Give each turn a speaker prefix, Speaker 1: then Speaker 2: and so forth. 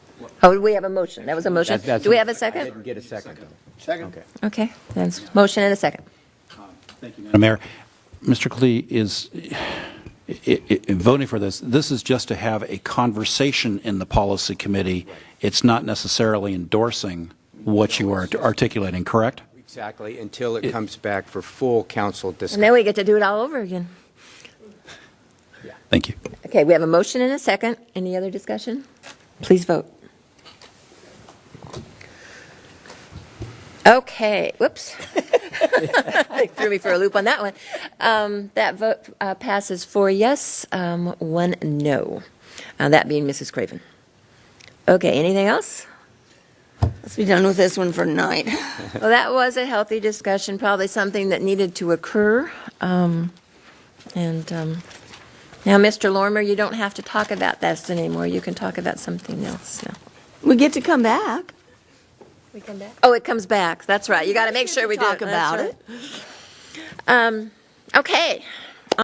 Speaker 1: Oh, we have a motion. That was a motion.
Speaker 2: That- that's-
Speaker 1: Do we have a
Speaker 2: I
Speaker 1: second?
Speaker 2: didn't get a second, though.
Speaker 3: Second.
Speaker 2: Okay.
Speaker 1: Okay, that's motion and a second.
Speaker 3: Thank you, Madam
Speaker 4: Madam Mayor, Mr. Klee is, i- i- i- voting for this, this is just to have a conversation in the policy committee. It's not necessarily endorsing what you are articulating, correct?
Speaker 2: Exactly, until it comes back for full council
Speaker 1: And then
Speaker 2: discussion.
Speaker 1: we get to do it all over again.
Speaker 4: Thank you.
Speaker 1: Okay, we have a motion and a second. Any other discussion? Please vote. Okay, whoops. Threw me for a loop on that one. Um, That vote uh, passes four yes, um, one no, Uh, that being Mrs. Craven. Okay, anything else?
Speaker 5: Let's be done with this one for tonight.
Speaker 1: Well, that was a healthy discussion, probably something that needed to occur. Um, And um, now, Mr. Lormer, you don't have to talk about this anymore. You can talk about something else now.
Speaker 5: We get to come back.
Speaker 1: Oh, it comes back. That's right. You got to make sure we do it.
Speaker 5: Talk about
Speaker 1: That's right. Um, Okay,